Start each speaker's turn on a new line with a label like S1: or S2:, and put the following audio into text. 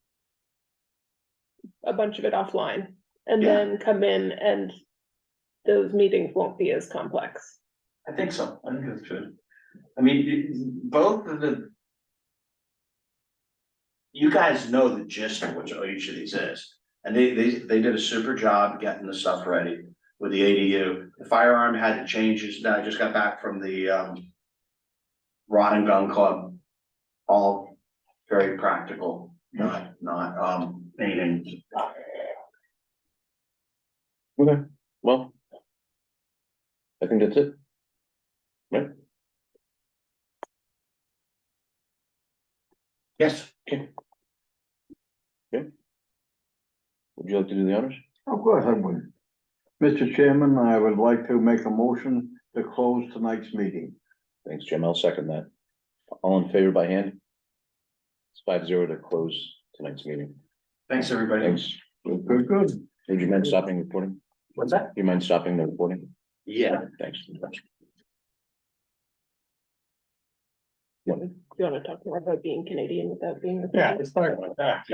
S1: a bunch of it offline and
S2: Yeah.
S1: then come in and those meetings won't be as complex.
S2: I think so, I think that's good. I mean, it- both of the. You guys know the gist of what each of these is, and they, they, they did a super job getting the stuff ready with the ADU. The firearm had the changes, now I just got back from the, um. Rod and Gun Club, all very practical, not, not, um, anything.
S3: Okay, well. I think that's it. Right?
S2: Yes.
S3: Would you like to do the honors?
S4: Of course I would. Mr. Chairman, I would like to make a motion to close tonight's meeting.
S3: Thanks, Jim. I'll second that. All in favor by hand? It's five zero to close tonight's meeting.
S2: Thanks, everybody.
S3: Thanks. Would
S4: Good, good.
S3: you mind stopping recording?
S2: What's that?
S3: Do you mind stopping the recording?
S2: Yeah.
S3: Thanks.
S1: Do you wanna talk more about being Canadian without being?
S5: Yeah, it's like that.